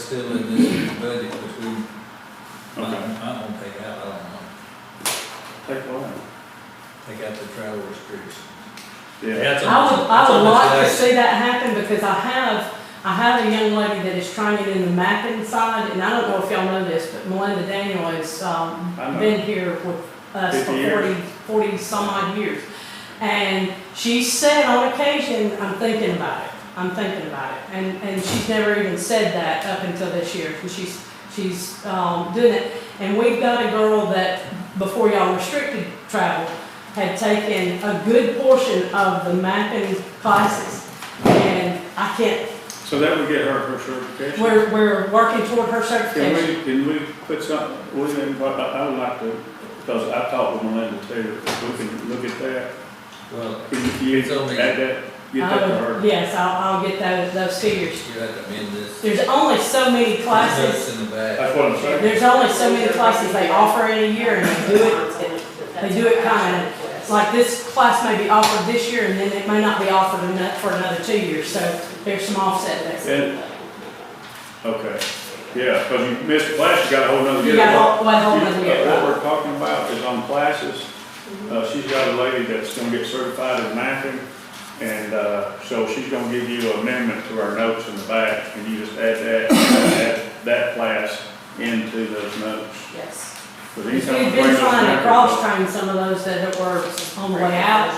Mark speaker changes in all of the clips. Speaker 1: still in this budget, which we might,
Speaker 2: Okay.
Speaker 1: might want to take out, I don't know,
Speaker 2: Take what out?
Speaker 1: take out the travel restrictions.
Speaker 2: Yeah,
Speaker 1: That's on-
Speaker 3: I would,
Speaker 1: that's
Speaker 3: I
Speaker 1: on
Speaker 3: would
Speaker 1: this
Speaker 3: like to
Speaker 1: list.
Speaker 3: see that happen because I have, I have a young lady that is trying to get in the mapping side, and I don't know if y'all know this, but Melinda Daniel has, um,
Speaker 2: I know.
Speaker 3: been here with us for
Speaker 2: 50 years.
Speaker 3: forty, forty some odd years. And she said on occasion, I'm thinking about it, I'm thinking about it, and, and she's never even said that up until this year, and she's, she's, um, doing it. And we've got a girl that, before y'all restricted travel, had taken a good portion of the mapping classes. And I can't,
Speaker 2: so that would get her her certification.
Speaker 3: we're, we're working toward her
Speaker 2: Can
Speaker 3: certification.
Speaker 2: we, can we put something, we, can- what I I would like to, because I talked with Melinda too, if we can look at that,
Speaker 1: Well,
Speaker 2: can you
Speaker 1: It's only-
Speaker 2: add that, get
Speaker 3: I
Speaker 2: that to
Speaker 3: would-
Speaker 2: her?
Speaker 3: Yes, I'll, I'll get those, those figures.
Speaker 1: you have to amend this.
Speaker 3: There's only so many
Speaker 1: It's
Speaker 3: classes,
Speaker 1: in the back.
Speaker 2: That's what I'm saying.
Speaker 3: there's only so many classes they offer in a year and they do it.
Speaker 4: they do it kind of like.
Speaker 3: Like this class may be offered this year and then it may not be offered ano- for another two years, so there's some offset there.
Speaker 2: And, okay, yeah, because you missed a class, you got a whole nother year.
Speaker 3: You got a whole- what, whole
Speaker 2: You-
Speaker 3: nother year,
Speaker 2: What
Speaker 3: right?
Speaker 2: we're talking about is on classes, uh, she's got a lady that's gonna get certified in mapping, and, uh, so she's gonna give you an amendment to our notes in the back, and you just add that, add that class into those notes.
Speaker 4: Yes.
Speaker 2: Because
Speaker 3: We've
Speaker 2: anytime we bring
Speaker 3: been
Speaker 2: those
Speaker 3: trying to
Speaker 2: mappers
Speaker 3: cross
Speaker 2: up-
Speaker 3: train some of those that were on
Speaker 4: On
Speaker 3: the way out.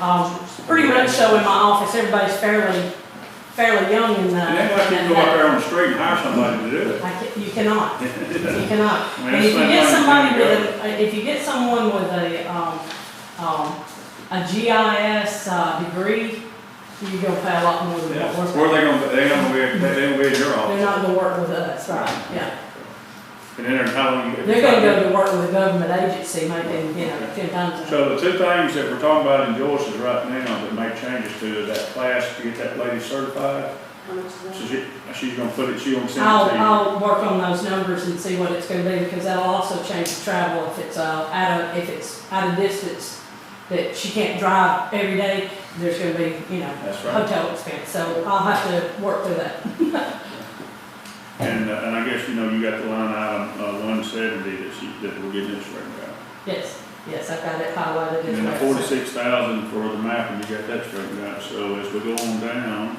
Speaker 3: Um, pretty much so in my office, everybody's fairly, fairly young in the.
Speaker 2: And then like you can go out there on the street and hire somebody to do it.
Speaker 3: I ca- you cannot, you cannot.
Speaker 2: I mean,
Speaker 3: And if you
Speaker 2: that's
Speaker 3: get
Speaker 2: like
Speaker 3: somebody
Speaker 2: mine,
Speaker 3: with, a if you get someone with a, um, um, a GIS, uh, degree, you go pay a lot more than
Speaker 2: Yeah.
Speaker 3: what
Speaker 2: Where
Speaker 3: we're.
Speaker 2: they gonna, they gonna be, they gonna be in your
Speaker 3: They're
Speaker 2: office.
Speaker 3: not gonna work with us, right, yeah.
Speaker 2: And then they're telling you.
Speaker 3: They're gonna go to work with a government agency, maybe, you know, ten times.
Speaker 2: So the two things that we're talking about in Joyce's right now that make changes to is that class to get that lady certified. So she, she's gonna put it, she gonna send it to you.
Speaker 3: I'll, I'll work on those numbers and see what it's gonna be, because that'll also change the travel if it's, uh, out of, if it's out of distance, that she can't drive every day, there's gonna be, you know,
Speaker 2: That's right.
Speaker 3: hotel expense, so I'll have to work through that. oh.
Speaker 2: And, uh, and I guess, you know, you got the line item, uh, one seventy that she, that we're getting this straightened out.
Speaker 3: Yes, yes, I've got it highlighted
Speaker 2: And then the
Speaker 3: as well. so-
Speaker 2: forty-six thousand for the map, and you got that straightened out. So as we go on down,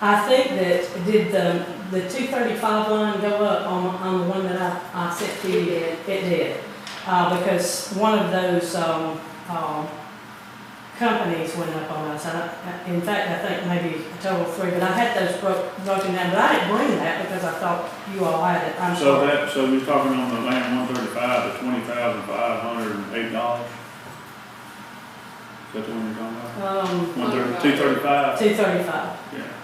Speaker 3: I think that, did the, the two thirty-five line go up on, on the one that I, I sent to you? It did, uh, because one of those, um, um, companies went up on us, I, I- in fact, I think maybe a total of three, but I had those broke, broken down, but I didn't bring that because I thought you all had it, I'm
Speaker 2: So
Speaker 3: sorry.
Speaker 2: that, so you're talking on the land one thirty-five, the twenty thousand five hundred and eight dollars? Is that the one you're talking about?
Speaker 3: Um,
Speaker 2: One thirty, two thirty-five?
Speaker 3: two thirty-five,
Speaker 2: Yeah.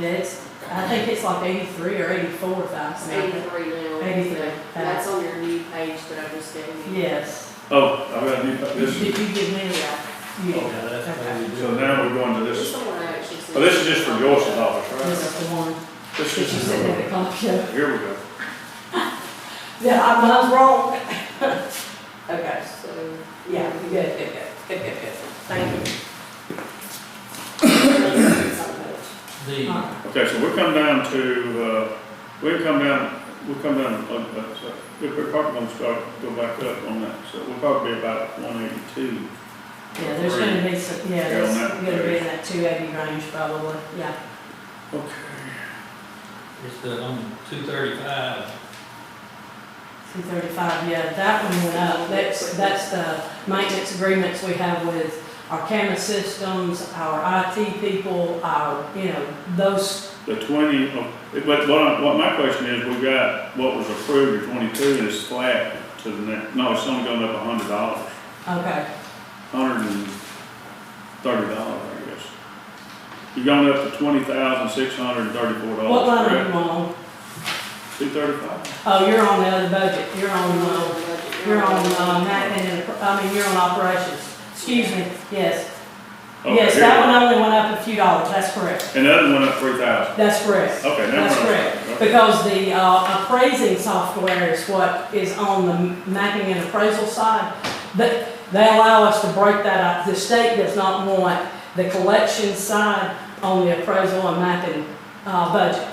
Speaker 3: yeah, it's, I think it's like eighty-three or eighty-four thousand,
Speaker 4: Eighty-three now.
Speaker 3: Eighty-three.
Speaker 4: That's on your new page that I just gave you.
Speaker 3: yes.
Speaker 2: Oh, I've got a new,
Speaker 3: Did
Speaker 2: this,
Speaker 3: you give me that? You-
Speaker 1: Yeah, that's what we do.
Speaker 2: so now we're going to
Speaker 4: It's
Speaker 2: this,
Speaker 4: the one I actually sent.
Speaker 2: well, Oh, this is just for Joyce's office,
Speaker 3: This
Speaker 2: right?
Speaker 3: is the one
Speaker 2: This
Speaker 3: that you
Speaker 2: is,
Speaker 3: said that it cost you.
Speaker 2: here we go.
Speaker 3: Yeah, I was wrong. Okay,
Speaker 4: So.
Speaker 3: yeah, good, good, good, good, good, good. Thank you.
Speaker 1: The,
Speaker 3: Uh,
Speaker 2: Okay, so we'll come down to, uh, we'll come down, we'll come down, uh, uh, so if we're probably gonna start, go back up on that, so we'll probably be about one eighty-two.
Speaker 3: Yeah, there's gonna be some, yeah,
Speaker 2: Yeah, on
Speaker 3: there's
Speaker 2: that
Speaker 3: gonna be
Speaker 2: page.
Speaker 3: in that two eighty range probably, yeah.
Speaker 2: Okay.
Speaker 1: it's the, on two thirty-five,
Speaker 3: Two thirty-five, yeah, that one went up. That's, that's the maintenance agreements we have with our camera systems, our IT people, our, you know, those,
Speaker 2: The twenty, oh, but what, I- what my question is, we got, what was approved, the twenty-two is flat to the next, no, it's only going up a hundred dollars,
Speaker 3: okay.
Speaker 2: hundred and thirty dollars, I guess. You're going up to twenty thousand, six hundred and thirty-four
Speaker 3: What
Speaker 2: dollars,
Speaker 3: line are
Speaker 2: correct?
Speaker 3: you on?
Speaker 2: Two thirty-five?
Speaker 3: Oh, you're on the other budget, you're on, uh, You're on, um,
Speaker 4: that
Speaker 3: mapping and, I mean, you're on operations, excuse me, yes.
Speaker 2: Okay,
Speaker 3: Yes,
Speaker 2: here
Speaker 3: that
Speaker 2: we go.
Speaker 3: one only went up a few dollars, that's correct,
Speaker 2: And the other one up three thousand,
Speaker 3: that's correct.
Speaker 2: okay, now
Speaker 3: That's
Speaker 2: we're
Speaker 3: correct, because the, uh, appraising software is what is on the mapping and appraisal side. That, they allow us to break that up, the state does not want the collection side on the appraisal and mapping, uh, budget.